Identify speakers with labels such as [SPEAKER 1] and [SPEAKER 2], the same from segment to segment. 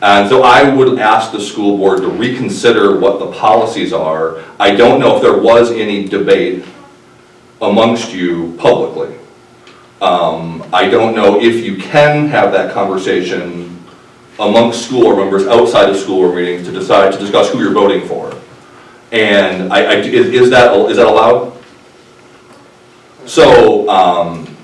[SPEAKER 1] And so I would ask the school board to reconsider what the policies are. I don't know if there was any debate amongst you publicly. Um, I don't know if you can have that conversation amongst school board members outside of school board meetings to decide, to discuss who you're voting for. And I, I, is is that, is that allowed? So, um,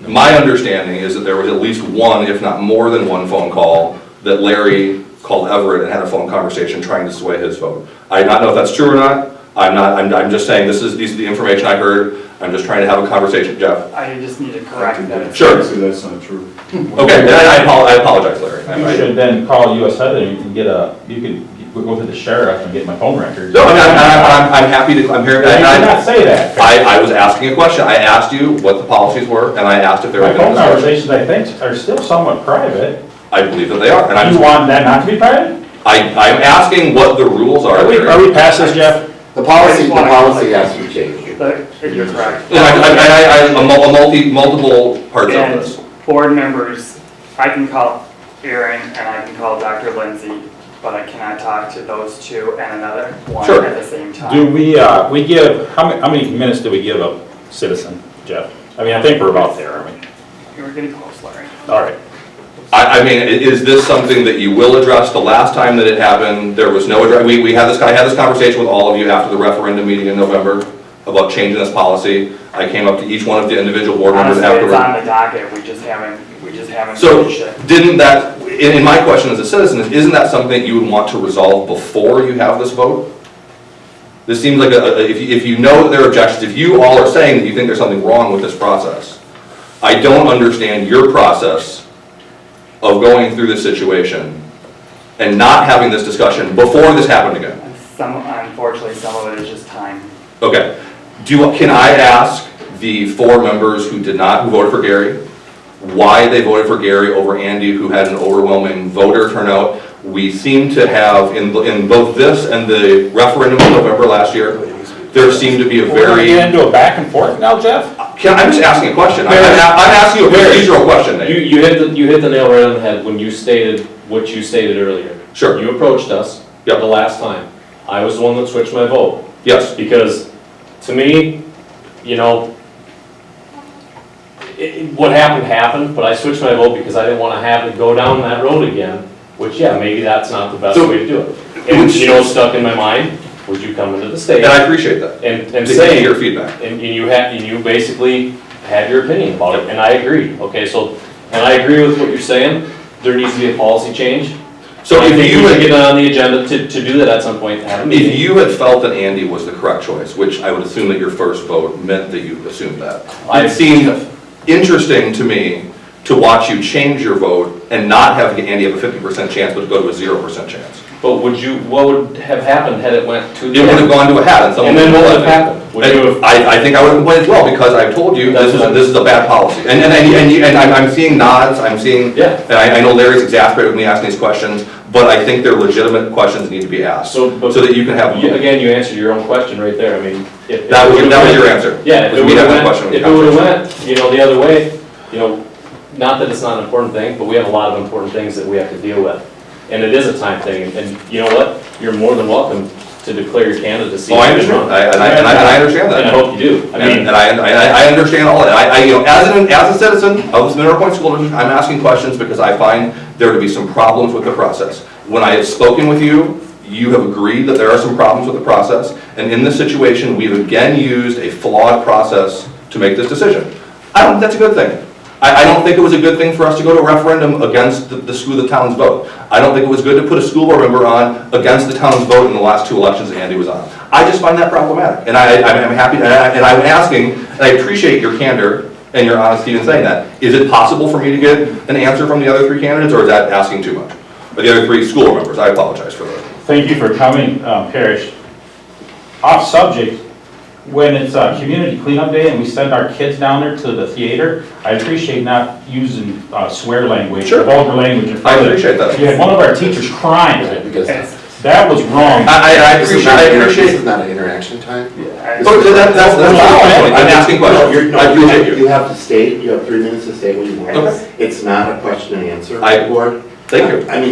[SPEAKER 1] my understanding is that there was at least one, if not more than one phone call that Larry called Everett and had a phone conversation trying to sway his vote. I do not know if that's true or not. I'm not, I'm, I'm just saying this is, these are the information I heard. I'm just trying to have a conversation, Jeff.
[SPEAKER 2] I just need to correct that.
[SPEAKER 1] Sure.
[SPEAKER 3] So that's not true.
[SPEAKER 1] Okay, and I apo- I apologize, Larry. I-
[SPEAKER 4] You
[SPEAKER 1] I-
[SPEAKER 4] should then call US Southern, you can get a, you could go to the sheriff and get my phone records.
[SPEAKER 1] No, I'm, I'm, I'm, I'm happy to, I'm here,
[SPEAKER 4] You
[SPEAKER 1] and I-
[SPEAKER 4] cannot say that.
[SPEAKER 1] I, I was asking a question. I asked you what the policies were and I asked if there
[SPEAKER 4] My
[SPEAKER 1] had been a
[SPEAKER 4] phone
[SPEAKER 1] discussion.
[SPEAKER 4] conversations, I think, are still somewhat private.
[SPEAKER 1] I believe that they are, and
[SPEAKER 4] You
[SPEAKER 1] I'm,
[SPEAKER 4] want that not to be private?
[SPEAKER 1] I, I'm asking what the rules are.
[SPEAKER 4] Are we,
[SPEAKER 1] Larry.
[SPEAKER 4] are we past this, Jeff?
[SPEAKER 5] The policy, the policy has to change.
[SPEAKER 2] But You're correct.
[SPEAKER 1] Yeah, I- I- I- I- a mul- a multi, multiple parts of this.
[SPEAKER 2] And board members, I can call Aaron and I can call Dr. Lindsay, but I cannot talk to those two and another one
[SPEAKER 1] Sure.
[SPEAKER 2] at the same time.
[SPEAKER 4] Do we, uh, we give, how many, how many minutes do we give a citizen, Jeff? I mean, I think we're about there, I mean,
[SPEAKER 2] You're getting close, Larry.
[SPEAKER 4] all right.
[SPEAKER 1] I, I mean, i- is this something that you will address? The last time that it happened, there was no address, we, we had this, I had this conversation with all of you after the referendum meeting in November about changing this policy. I came up to each one of the individual board members
[SPEAKER 2] Honestly, it's
[SPEAKER 1] afterward.
[SPEAKER 2] on the docket, we just haven't, we just haven't
[SPEAKER 1] So
[SPEAKER 2] finished it.
[SPEAKER 1] didn't that, in, in my question as a citizen, is isn't that something that you would want to resolve before you have this vote? This seems like a, a- if you, if you know that there are objections, if you all are saying that you think there's something wrong with this process, I don't understand your process of going through this situation and not having this discussion before this happened again.
[SPEAKER 2] And Some, unfortunately, some of it is just time.
[SPEAKER 1] Okay. Do, you- can I ask the four members who did not, who voted for Gary, why they voted for Gary over Andy, who had an overwhelming voter turnout? We seem to have, in, in both this and the referendum in November last year, there seemed to be a
[SPEAKER 4] We're gonna
[SPEAKER 1] very,
[SPEAKER 4] get into a back and forth now, Jeff?
[SPEAKER 1] Can- I'm just asking a question. I'm, I'm I'm asking you a procedural question,
[SPEAKER 6] You,
[SPEAKER 1] Nate.
[SPEAKER 6] you hit the, you hit the nail right on the head when you stated what you stated earlier.
[SPEAKER 1] Sure.
[SPEAKER 6] You approached us.
[SPEAKER 1] Yep.
[SPEAKER 6] The last time. I was the one that switched my vote,
[SPEAKER 1] Yes,
[SPEAKER 6] because to me, you know, it, it- what happened happened, but I switched my vote because I didn't wanna have to go down that road again, which, yeah, maybe that's not the best
[SPEAKER 1] So-
[SPEAKER 6] way to do it. And, you know, stuck in my mind, would you come into the state
[SPEAKER 1] and I appreciate that.
[SPEAKER 6] and, and
[SPEAKER 1] To
[SPEAKER 6] say.
[SPEAKER 1] hear Your feedback.
[SPEAKER 6] And and you had, and you basically had your opinion about it, and I agree, okay, so, and I agree with what you're saying, there needs to be a policy change.
[SPEAKER 1] So
[SPEAKER 6] I
[SPEAKER 1] if
[SPEAKER 6] think
[SPEAKER 1] you
[SPEAKER 6] we should
[SPEAKER 1] had
[SPEAKER 6] Get it on the agenda to, to do that at some point, have a
[SPEAKER 1] If
[SPEAKER 6] meeting.
[SPEAKER 1] you had felt that Andy was the correct choice, which I would assume that your first vote meant that you assumed that,
[SPEAKER 6] I-
[SPEAKER 1] it seemed interesting to me to watch you change your vote and not have Andy have a fifty percent chance, but go to a zero percent chance.
[SPEAKER 6] But would you, what would have happened had it went to
[SPEAKER 1] It
[SPEAKER 6] the.
[SPEAKER 1] would have gone to a hat and someone.
[SPEAKER 6] And then what would have
[SPEAKER 1] complained.
[SPEAKER 6] happened? Would you have,
[SPEAKER 1] I, I think I would have complained as well, because I've told you, this is, this is a bad policy. And, and, and- and, you- and I'm, I'm seeing nods, I'm seeing.
[SPEAKER 6] Yeah.
[SPEAKER 1] And I, I know Larry's exasperated with me asking these questions, but I think they're legitimate questions that need to be asked, so
[SPEAKER 6] So, but-
[SPEAKER 1] that you can have.
[SPEAKER 6] you- again, you answered your own question right there, I mean, if. if
[SPEAKER 1] That
[SPEAKER 6] it
[SPEAKER 1] was,
[SPEAKER 6] would've
[SPEAKER 1] that was
[SPEAKER 6] went-
[SPEAKER 1] your answer.
[SPEAKER 6] Yeah, if
[SPEAKER 1] Was
[SPEAKER 6] it
[SPEAKER 1] we
[SPEAKER 6] would
[SPEAKER 1] have that
[SPEAKER 6] have
[SPEAKER 1] question
[SPEAKER 6] went,
[SPEAKER 1] when we
[SPEAKER 6] if it would have
[SPEAKER 1] conversation.
[SPEAKER 6] went, you know, the other way, you know, not that it's not an important thing, but we have a lot of important things that we have to deal with. And it is a time thing, and- and you know what? You're more than welcome to declare your candidacy.
[SPEAKER 1] Oh, I
[SPEAKER 6] if you're
[SPEAKER 1] understand,
[SPEAKER 6] wrong.
[SPEAKER 1] I- and I, and I, and I understand
[SPEAKER 6] And I
[SPEAKER 1] that.
[SPEAKER 6] hope you do. I
[SPEAKER 1] And and
[SPEAKER 6] mean,
[SPEAKER 1] I, and I, I understand all of that. I, I, you know, as an, as a citizen of this Mineral Point School District, I'm asking questions because I find there to be some problems with the process. When I have spoken with you, you have agreed that there are some problems with the process, and in this situation, we've again used a flawed process to make this decision. I don't, think that's a good thing. I, I don't think it was a good thing for us to go to a referendum against the, the school, the town's vote. I don't think it was good to put a school board member on against the town's vote in the last two elections that Andy was on. I just find that problematic, and I, I'm I'm happy, and I- and I'm asking, and I appreciate your candor and your honesty in saying that. Is it possible for me to get an answer from the other three candidates, or is that asking too much? Or the other three school board members, I apologize for that.
[SPEAKER 4] Thank you for coming, um, Parrish. Off subject, when it's uh community cleanup day and we send our kids down there to the theater, I appreciate not using uh, swear language,
[SPEAKER 1] Sure.
[SPEAKER 4] vulgar language in front
[SPEAKER 1] I
[SPEAKER 4] of
[SPEAKER 1] appreciate that.
[SPEAKER 4] You had one of our teachers crying.
[SPEAKER 5] Because
[SPEAKER 2] It's-
[SPEAKER 4] That was wrong.
[SPEAKER 1] I, I- I
[SPEAKER 5] this is
[SPEAKER 1] appreciate,
[SPEAKER 5] not
[SPEAKER 1] I
[SPEAKER 5] an inter-
[SPEAKER 1] appreciate.
[SPEAKER 5] This is not an interaction time.
[SPEAKER 2] I-
[SPEAKER 1] But that- that's, that's my point, I'm asking questions. I appreciate you.
[SPEAKER 5] You have to state, you have three minutes to state what you want.
[SPEAKER 1] Okay.
[SPEAKER 5] It's not a question and answer.
[SPEAKER 1] I-
[SPEAKER 5] Board.
[SPEAKER 1] Thank you.
[SPEAKER 5] I mean,